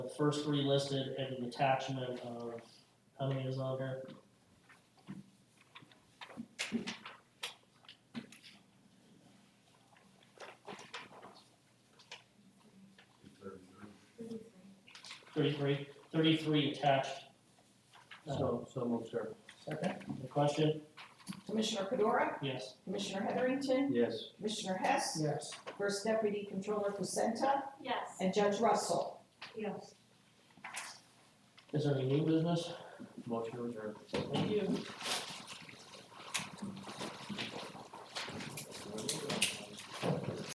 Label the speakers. Speaker 1: the first three listed and an attachment of, how many is on here? Thirty-three, thirty-three attached. Uh,
Speaker 2: So, so moved, sir.
Speaker 1: Second, the question,
Speaker 3: Commissioner Fedora,
Speaker 1: yes.
Speaker 3: Commissioner Heatherington,
Speaker 2: Yes.
Speaker 3: Commissioner Hess,
Speaker 1: Yes.
Speaker 3: First Deputy Controller Pusenta,
Speaker 4: Yes.
Speaker 3: and Judge Russell.
Speaker 4: Yes.
Speaker 1: Is there any new business?
Speaker 2: Motion to adjourn.
Speaker 1: Thank you.